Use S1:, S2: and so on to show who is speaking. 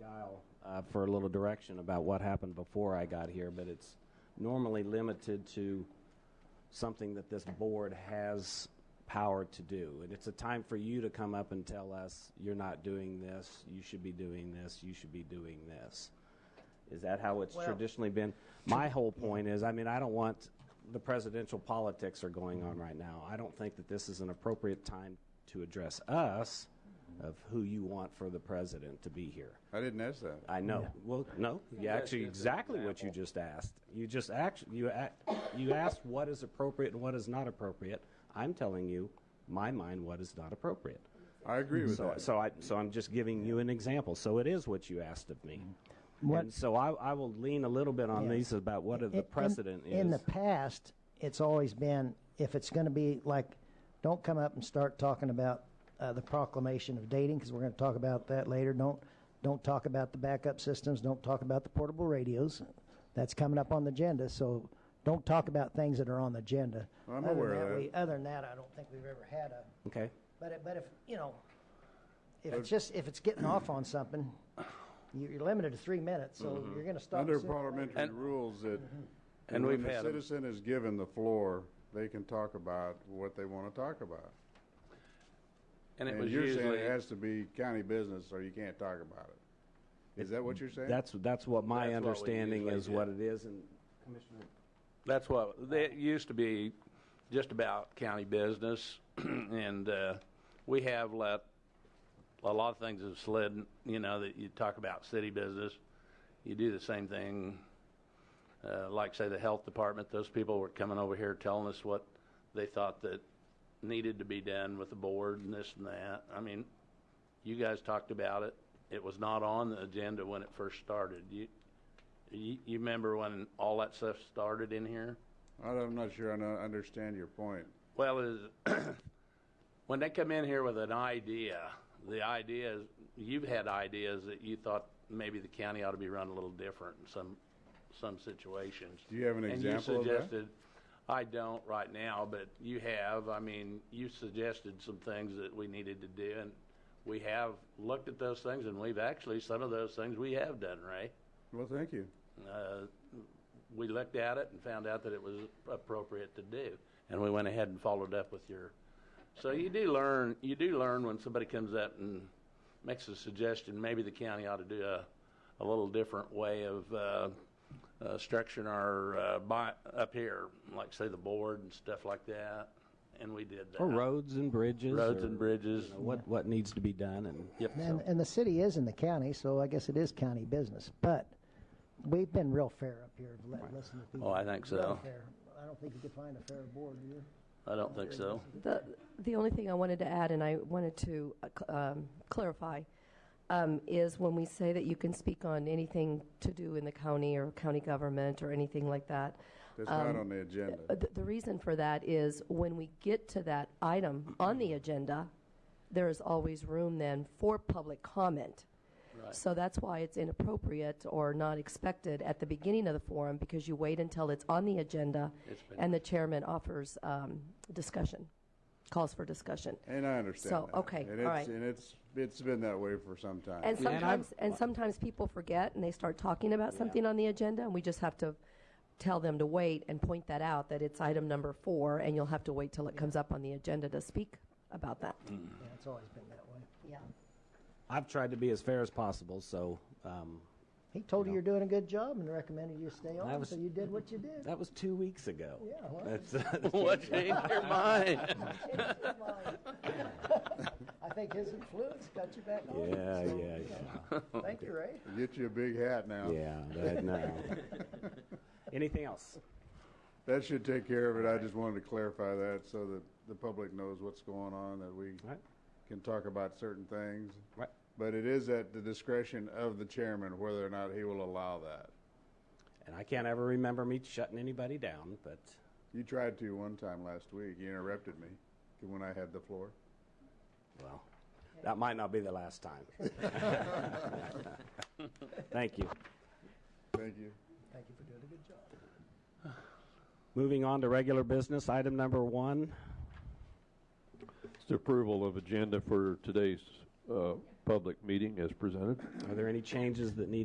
S1: dial uh, for a little direction about what happened before I got here, but it's normally limited to something that this board has power to do. And it's a time for you to come up and tell us, you're not doing this, you should be doing this, you should be doing this. Is that how it's
S2: Well-
S1: traditionally been? My whole point is, I mean, I don't want, the presidential politics are going on right now. I don't think that this is an appropriate time to address us of who you want for the president to be here.
S3: I didn't ask that.
S1: I know. Well, no, you actually exactly what you just asked. You just actually you a- you asked what is appropriate and what is not appropriate. I'm telling you, my mind, what is not appropriate.
S3: I agree with
S1: So,
S3: that.
S1: so I so I'm just giving you an example. So it is what you asked of me. And so I, I will lean a little bit on
S2: Yeah.
S1: these about what
S2: In-
S1: the precedent
S2: in,
S1: is.
S2: In the past, it's always been if it's going to be like, don't come up and start talking about uh, the proclamation of dating because we're going to talk about that later. Don't don't talk about the backup systems. Don't talk about the portable radios. That's coming up on the agenda. So don't talk about things that are on the agenda.
S3: I'm
S2: Other than
S3: aware of that.
S2: we- other than that, I don't think we've ever had a.
S1: okay.
S2: But it, but if you know, if it's just if it's getting off on something, you- you're limited to three minutes. So you're going to stop
S3: Mm-hmm. Under
S2: sooner or later.
S3: parliamentary rules that
S4: Mm-hmm.
S5: And
S3: when
S5: we've
S3: the
S5: had 'em.
S3: citizen is given the floor, they can talk about what they want to talk about.
S5: And it
S3: And
S5: was
S3: you're saying
S5: usually,
S3: it has to be county business or you can't talk about it. Is that what you're saying?
S1: That's that's what my
S5: That's what we
S1: understanding
S5: usually
S1: is.
S5: do.
S1: What it is, and Commissioner,
S5: that's what, that used to be just about county business. And uh, we have let, a lot of things have slid, you know, that you talk about city business. You do the same thing, uh, like say the health department, those people were coming over here telling us what they thought that needed to be done with the board and this and that. I mean, you guys talked about it. It was not on the agenda when it first started. You, you, you remember when all that stuff started in here?
S3: I don't- I'm not sure I know- understand your point.
S5: Well, is when they come in here with an idea, the idea is you've had ideas that you thought maybe the county ought to be run a little different in some some situations.
S3: Do you have an example
S5: And
S3: of
S5: you
S3: that?
S5: suggested, I don't right now, but you have. I mean, you suggested some things that we needed to do, and we have looked at those things, and we've actually some of those things we have done, Ray.
S3: Well, thank you.
S5: Uh, we looked at it and found out that it was appropriate to do, and we went ahead and followed up with your. So you do learn, you do learn when somebody comes up and makes a suggestion, maybe the county ought to do a, a little different way of, uh, uh, structuring our, uh, by, up here, like say the board and stuff like that, and we did that.
S1: or oh, roads and bridges,
S5: Roads
S1: or,
S5: and bridges.
S1: you know, what what needs to be done, and
S5: Yep.
S2: And, and the city is in the county, so I guess it is county business. But we've been real fair up here, li- listening to people.
S5: Oh, I think so.
S2: Real fair. I don't think you could find a fair board here.
S5: I don't think so.
S4: The, the only thing I wanted to add, and I wanted to uh, cl- um, clarify, um, is when we say that you can speak on anything to do in the county or county government or anything like that,
S3: That's not on the agenda.
S4: uh, the, the reason for that is when we get to that item on
S5: Mm-hmm.
S4: the agenda, there is always room then for public comment. So that's why it's inappropriate or not expected at the beginning of the forum because you wait until it's on the agenda
S5: It's been-
S4: and the chairman offers um, discussion, calls for discussion.
S3: And I understand
S4: So,
S3: that.
S4: okay,
S3: And
S4: all
S3: it's-
S4: right.
S3: And it's, it's been that way for some time.
S4: And
S1: Yeah, and I've-
S4: sometimes, and sometimes people forget and they start talking about something on the agenda, and we just have to tell them to wait and point that out, that it's item number four, and you'll have to wait till it comes up on the agenda to speak about that.
S2: Yeah, it's always been that way.
S4: Yeah.
S1: I've tried to be as fair as possible. So. Um,
S2: He told you you're doing a good job and recommended you stay on,
S1: was-
S2: so you did what you did.
S1: That was two weeks ago.
S2: Yeah, well.
S1: That's,
S5: What changed your mind?
S2: I think his influence got you back on.
S1: yeah,
S2: so,
S1: yeah, yeah.
S2: Thank you, Ray.
S3: Get you a big hat now.
S1: Yeah, that, no. Anything else?
S3: That should take care of it. I just wanted to clarify that so that the public knows what's going on, that we
S1: Right.
S3: can talk about certain things.
S1: Right.
S3: But it is at the discretion of the chairman whether or not he will allow that.
S1: And I can't ever remember me shutting anybody down, but
S3: You tried to one time last week. You interrupted me when I had the floor.
S1: well, that might not be the last time. Thank you.
S3: Thank you.
S2: Thank you for doing a good job.
S1: Moving on to regular business, item number one.
S6: It's the approval of agenda for today's uh, public meeting as presented.
S1: Are there any changes that need